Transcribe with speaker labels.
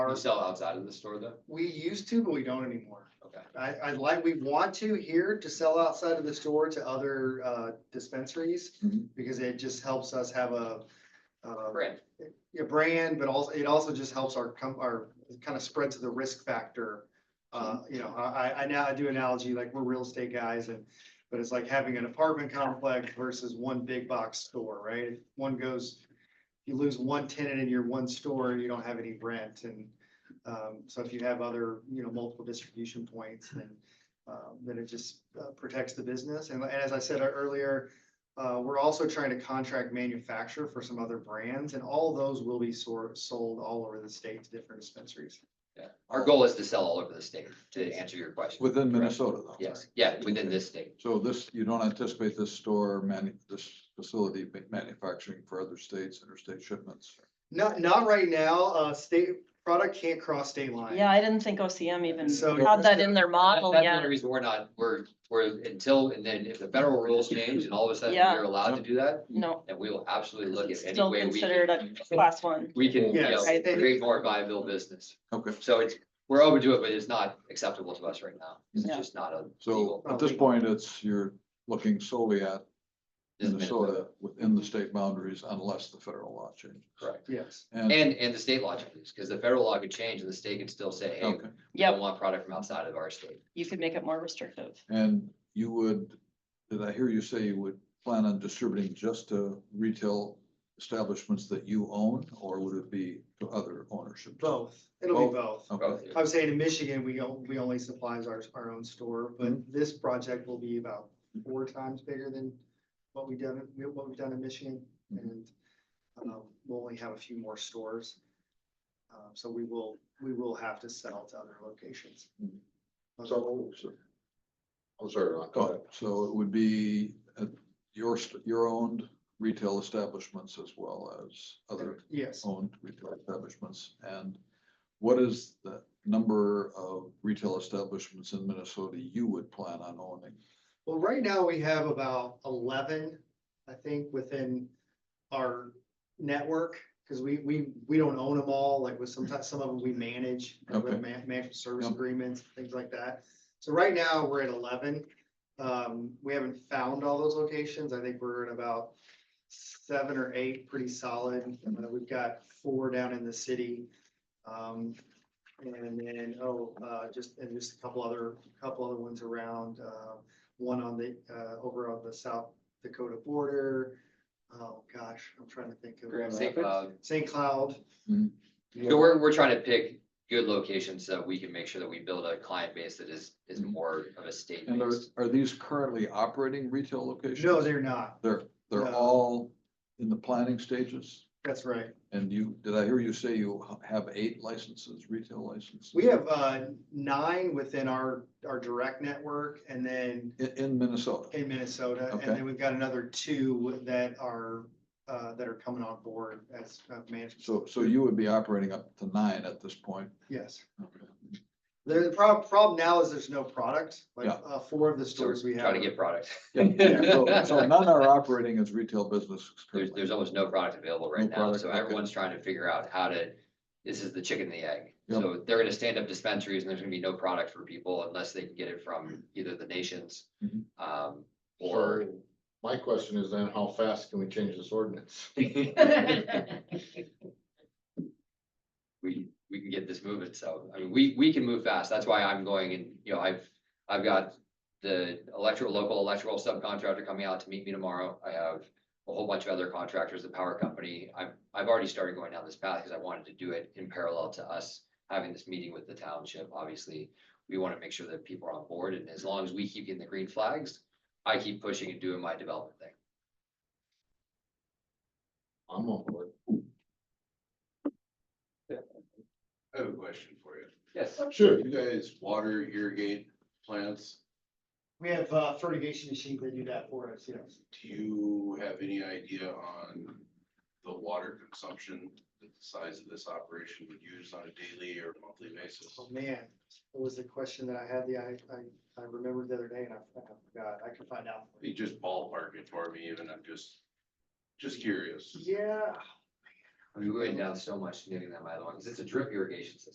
Speaker 1: You
Speaker 2: are,
Speaker 1: sell outside of the store though?
Speaker 2: uh, we used to, but we don't anymore.
Speaker 1: Okay.
Speaker 2: I, I like, we want to here to sell outside of the store to other, uh, dispensaries,
Speaker 1: Mhm.
Speaker 2: because it just helps us have a, uh,
Speaker 1: Brand.
Speaker 2: a brand, but also, it also just helps our, com- our, kind of spreads the risk factor. Uh, you know, I, I- I now, I do analogy, like, we're real estate guys, and, but it's like having an apartment complex versus one big box store, right? If One goes, you lose one tenant in your one store, you don't have any rent, and, um, so if you have other, you know, multiple distribution points, then, um, then it just uh, protects the business, and as I said earlier, uh, we're also trying to contract manufacture for some other brands, and all those will be sor- sold all over the state to different dispensaries.
Speaker 1: Yeah. Our goal is to sell all over the state, to answer your question.
Speaker 3: Within
Speaker 1: Correct.
Speaker 3: Minnesota though.
Speaker 1: Yes, yeah, within this state.
Speaker 3: So this, you don't anticipate this store, manu- this facility ma- manufacturing for other states, interstate shipments?
Speaker 2: Not, not right now, uh, state, product can't cross state lines.
Speaker 4: Yeah, I didn't think OCM
Speaker 2: So-
Speaker 4: even had that in their
Speaker 1: That-
Speaker 4: model
Speaker 1: That's the
Speaker 4: yet.
Speaker 1: only reason we're not, we're, we're until, and then if the federal rules change and all of a sudden
Speaker 4: Yeah.
Speaker 1: we're allowed to do that,
Speaker 4: No,
Speaker 1: then we will absolutely look at
Speaker 4: it's
Speaker 1: any
Speaker 4: still
Speaker 1: way we
Speaker 4: considered a
Speaker 1: can.
Speaker 4: class one.
Speaker 1: We can, you know,
Speaker 2: Yes. Right.
Speaker 1: create more viable business.
Speaker 3: Okay,
Speaker 1: So it's, we're open to it, but it's not acceptable to us right now. It's
Speaker 4: Yeah.
Speaker 1: just not a.
Speaker 3: so uh,
Speaker 1: legal-
Speaker 3: at this point, it's, you're looking solely at
Speaker 1: this is
Speaker 3: Minnesota within the state boundaries unless the federal law changes.
Speaker 1: Correct.
Speaker 2: Yes,
Speaker 3: And,
Speaker 1: And, and the state law changes, because the federal law could change and the state can still say, hey,
Speaker 3: okay,
Speaker 1: we don't
Speaker 4: Yep,
Speaker 1: want product from outside of our state.
Speaker 4: you could make it more restrictive.
Speaker 3: and you would, did I hear you say you would plan on distributing just to retail establishments that you own, or would it be to other ownership?
Speaker 2: both. It'll be both.
Speaker 3: Okay,
Speaker 1: Both.
Speaker 2: I was saying in Michigan, we, o- we only supplies our, our own store, but this project will be about four times bigger than what we've done, what we've done in Michigan.
Speaker 3: Mhm.
Speaker 2: And um, we'll only have a few more stores. Um, So we will, we will have to sell to other locations.
Speaker 3: Mhm.
Speaker 5: So, I'm sorry, Ron, go ahead.
Speaker 3: Oh, So it would be uh, your, st- your owned retail establishments as well as other
Speaker 2: Yes,
Speaker 3: owned retail establishments. And what is the number of retail establishments in Minnesota you would plan on owning?
Speaker 2: well, right now we have about eleven, I think, within our network. Because we, we, we don't own them all, like with sometimes, some of them we manage, like with
Speaker 3: Okay.
Speaker 2: man- management service
Speaker 3: Yep.
Speaker 2: agreements, things like that. So right now, we're at eleven. Um, we haven't found all those locations. I think we're at about seven or eight, pretty solid. Uh, We've got four down in the city. Um, and then, oh, uh, just, and just a couple other, couple other ones around, uh, one on the, uh, over on the South Dakota border. Oh, gosh, I'm trying to think of
Speaker 1: St. Cloud.
Speaker 2: St. Cloud.
Speaker 1: So we're, we're trying to pick good locations so that we can make sure that we build a client base that is, is more of a state.
Speaker 3: Mm-hmm. And are, are these currently operating retail locations?
Speaker 2: No, they're not.
Speaker 3: They're, they're
Speaker 2: No.
Speaker 3: all in the planning stages?
Speaker 2: That's right.
Speaker 3: And you, did I hear you say you have eight licenses, retail licenses?
Speaker 2: We have, uh, nine within our, our direct network and then
Speaker 3: In, in Minnesota?
Speaker 2: in Minnesota, and
Speaker 3: Okay.
Speaker 2: then we've got another two that are, uh, that are coming on board as uh, management.
Speaker 3: So, so you would be operating up to nine at this point?
Speaker 2: Yes.
Speaker 3: Okay.
Speaker 2: There, the prob- problem now is there's no product, like,
Speaker 3: Yeah.
Speaker 2: uh, four of the stores we have.
Speaker 1: Trying to get product.
Speaker 3: Yeah, so so none are operating as retail businesses
Speaker 1: There's,
Speaker 3: currently.
Speaker 1: there's almost no product available right
Speaker 3: No
Speaker 1: now,
Speaker 3: product,
Speaker 1: so
Speaker 3: okay.
Speaker 1: everyone's trying to figure out how to, this is the chicken and the egg.
Speaker 3: Yep.
Speaker 1: So they're gonna stand up dispensaries and there's gonna be no product for people unless they can get it
Speaker 3: Mm-hmm.
Speaker 1: from either the nations.
Speaker 3: Mhm.
Speaker 1: Um, or,
Speaker 5: Or, my question is then, how fast can we change this ordinance?
Speaker 1: we, we can get this moving, so, I mean, we, we can move fast, that's why I'm going and, you know, I've, I've got. The electrical, local electrical subcontractor coming out to meet me tomorrow, I have a whole bunch of other contractors, the power company, I've, I've already started going down this path, because I wanted to do it in parallel to us. Having this meeting with the township, obviously, we want to make sure that people are on board, and as long as we keep getting the green flags, I keep pushing and doing my development thing.
Speaker 5: I'm on board.
Speaker 6: I have a question for you.
Speaker 1: Yes.
Speaker 5: Sure.
Speaker 6: You guys water irrigate plants?
Speaker 2: We have, uh, fertigation machines that do that for us, yes.
Speaker 6: Do you have any idea on the water consumption that the size of this operation would use on a daily or monthly basis?
Speaker 2: Oh, man, it was the question that I had, the, I, I, I remembered the other day and I forgot, I can find out.
Speaker 6: You just ballpark it for me, and I'm just, just curious.
Speaker 2: Yeah,
Speaker 1: I mean, we went down so much getting that by the way, because it's a drip irrigation system.